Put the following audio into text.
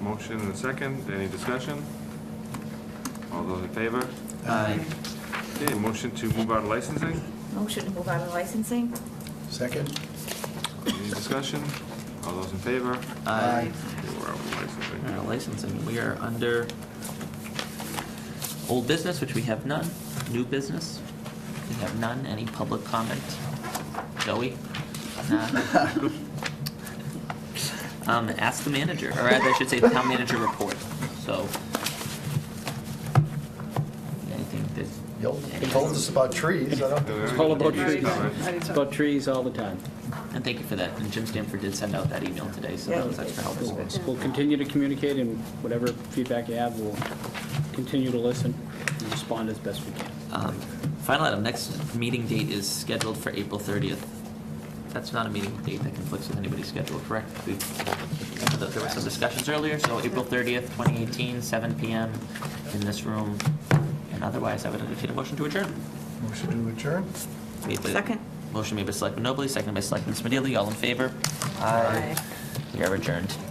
motion and a second. Any discussion? All those in favor? Aye. Okay, motion to move out of licensing. Motion to move out of licensing? Second? Any discussion? All those in favor? Aye. Okay, We're out of licensing. All right, licensing, we are under old business, which we have none, new business, we have none, any public comment? Joey? Nah. Um, ask the manager, or rather, I should say, the town manager report, so. Anything that. Y'all told us about trees, I don't. It's It's all about Already trees. done. It's about trees all the time. And thank you for that, and Jim Stanford did send out that email today, so Yeah, that he was did. extra helpful. We'll- We'll continue to communicate, and whatever feedback you have, we'll continue to listen and respond as best we can. Um, Final item, next meeting date is scheduled for April 30th. That's not a meeting date that conflicts with anybody's schedule, correct? We- There were some discussions earlier, so April 30th, 2018, 7 PM in this room. And otherwise, I would entertain a motion to adjourn. Motion to adjourn? Made by- Second. Motion made by Selectman Nobley, seconded by Selectman Smedili. All in favor? Aye. We are adjourned.